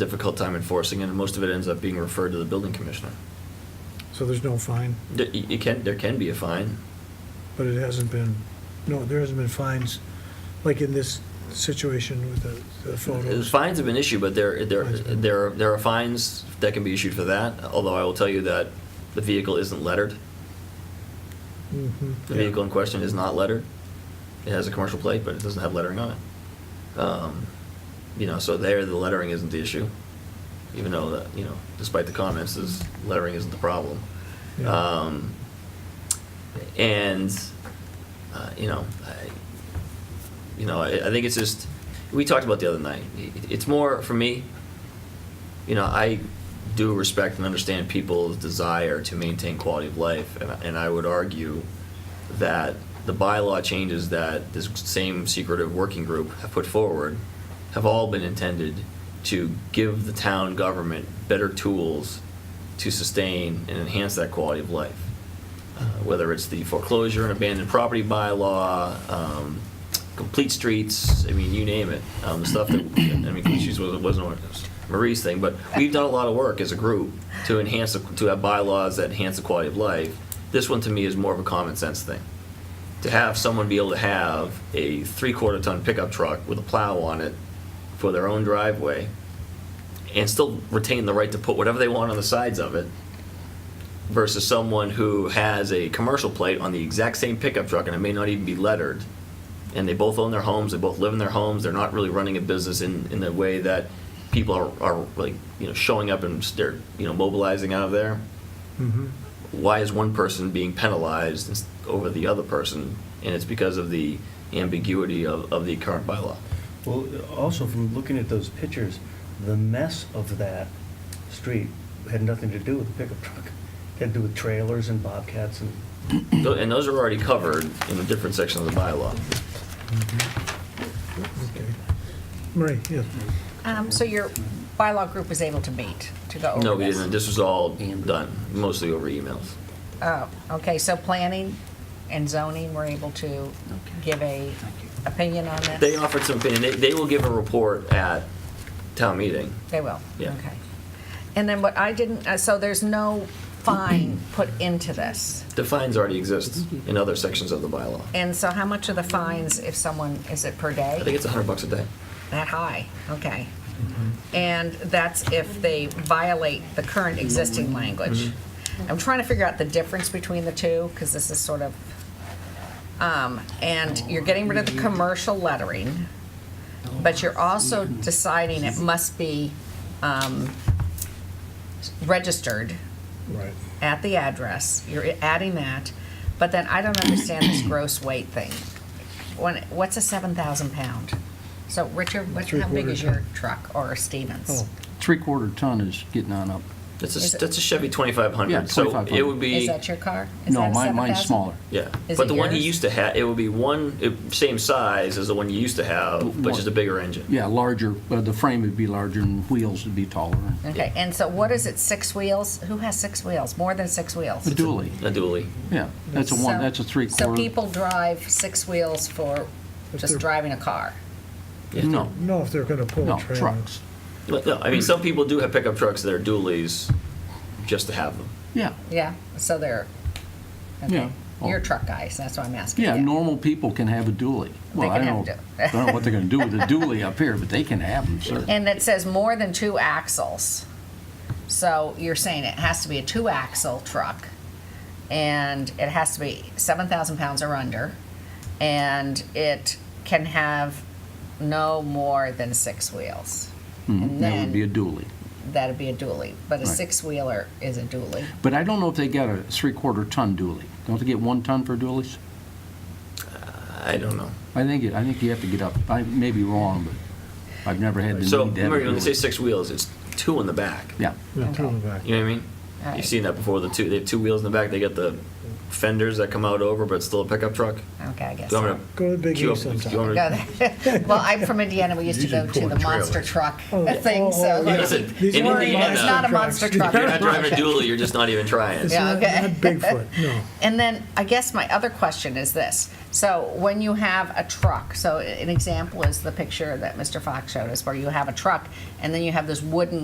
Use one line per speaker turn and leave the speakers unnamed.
difficult time enforcing it, and most of it ends up being referred to the building commissioner.
So there's no fine,
There- y- It can, there can be a fine.
but it hasn't been, no, there hasn't been fines, like in this situation with the the
The
photos.
Uh, Fines have been issued, but there, there,
Fines have been-
there, are- there are fines that can be issued for that, although I will tell you that the vehicle isn't lettered.
Mhm.
The vehicle in question is not lettered. It has a commercial plate, but it doesn't have lettering on it. Um, You know, so there, the lettering isn't the issue, even though, that you know, despite the comments, is lettering isn't the problem.
Yeah.
Um, And, uh, you know, I, you know, I, I think it's just, we talked about the other night. It- It's more, for me, you know, I do respect and understand people's desire to maintain quality of life, and, and I would argue that the bylaw changes that this same secretive working group have put forward have all been intended to give the town government better tools to sustain and enhance that quality of life. Uh, Whether it's the foreclosure and abandoned property bylaw, um, complete streets, I mean, you name it, um, the stuff that, I mean, complete streets wasn't, wasn't Marie's thing, but we've done a lot of work as a group to enhance, the- to have bylaws that enhance the quality of life. This one to me is more of a common sense thing. To have someone be able to have a three-quarter ton pickup truck with a plow on it for their own driveway and still retain the right to put whatever they want on the sides of it versus someone who has a commercial plate on the exact same pickup truck and it may not even be lettered. And they both own their homes, they both live in their homes, they're not really running a business in, in the way that people are, are like, you know, showing up and they're, you know, mobilizing out of there.
Mhm.
Why is one person being penalized ins- over the other person? And it's because of the ambiguity of, of the current bylaw.
Well, also from looking at those pictures, the mess of that street had nothing to do with the pickup truck. It had to do with trailers and bobcats and,
Tho- And those are already covered in a different section of the bylaw.
Okay. Marie, yeah,
Um, so your bylaw group was able to meet, to go over this?
No, we didn't, this was all done, mostly over emails.
Oh, okay, so planning and zoning were able to give a opinion on this?
They offered some opinion, they, they will give a report at town meeting.
They will?
Yeah.
Okay. And then what I didn't, uh, so there's no fine put into this?
The fines already exist in other sections of the bylaw.
And so how much are the fines if someone, is it per day?
I think it's hundred bucks a day.
That high, okay. And that's if they violate the current existing language. I'm trying to figure out the difference between the two, because this is sort of, um, and you're getting rid of the commercial lettering, but you're also deciding it must be, um, registered
right.
at the address, you're adding that, but then I don't understand this gross weight thing. When, what's a seven thousand pound? So, Richard, what, how big is
Three-quarters,
your truck or Stevens?
Oh.
Three-quarter ton is getting on up.
That's
Is
a,
it-
that's a Chevy twenty-five
Yeah,
hundred, so it
2500.
would be.
Is that your car? Is
No,
that a
mine, mine's
7,000?
smaller.
Yeah,
Is
but
it
the one he
yours?
used to have, it would be one, it- same size as the one you used to have, but
One.
just a bigger engine.
Yeah, larger, uh, the frame would be larger and wheels would be taller.
Okay, and so what is it, six wheels? Who has six wheels? More than six wheels?
A dually,
A dually.
yeah, that's a one,
So-
that's a
So
three-quarter.
people drive six wheels for
If
just
they're-
driving a car?
No,
No, if they're going to pull
no,
a trailer.
trucks,
But no, I mean, some people do have pickup trucks that are dualies just to have them.
yeah,
Yeah, so they're,
yeah.
okay. You're truck guys, that's why I'm asking.
Yeah, normal people can have a dually. Well, I
can
don't know,
have a
I don't know what they're gonna do with a dually up here, but they can have them, sir.
And it says more than two axles. So you're saying it has to be a two-axle truck, and it has to be 7,000 pounds or under, and it can have no more than six wheels.
Mhm,
And
That would be a
then,
dually.
that'd be a dually, but a
Right.
six-wheeler is a dually.
But I don't know if they got a three-quarter ton dually. Don't they get one ton for dualies?
I don't know.
I think, it- I think you have to get up, I may be wrong, but I've never had the need
So,
to have a
remember, when they say
dually.
six wheels, it's two in the back.
Yeah,
Yeah, two in the back.
You know what I mean?
Alright.
You've seen that before. The two they have two wheels in the back. They got the fenders that come out over, but it's still a pickup truck.
Okay, I guess.
Do you want
so.
me to
Go to Big
queue
E
up- do you
sometime.
want me to-
Go there. Well, I'm from Indiana, we used to go to the monster truck
Oh, yeah.
thing, so.
Oh, oh,
Yeah, listen,
These
in
aren't
Worried
Indiana-
It's not a monster truck.
You're not driving a dually, you're just not even trying.
It's
Yeah,
not
okay.
not Bigfoot, no.
And then I guess my other question is this. So when you have a truck, so an example is the picture that Mr. Fox showed us where you have a truck and then you have this wooden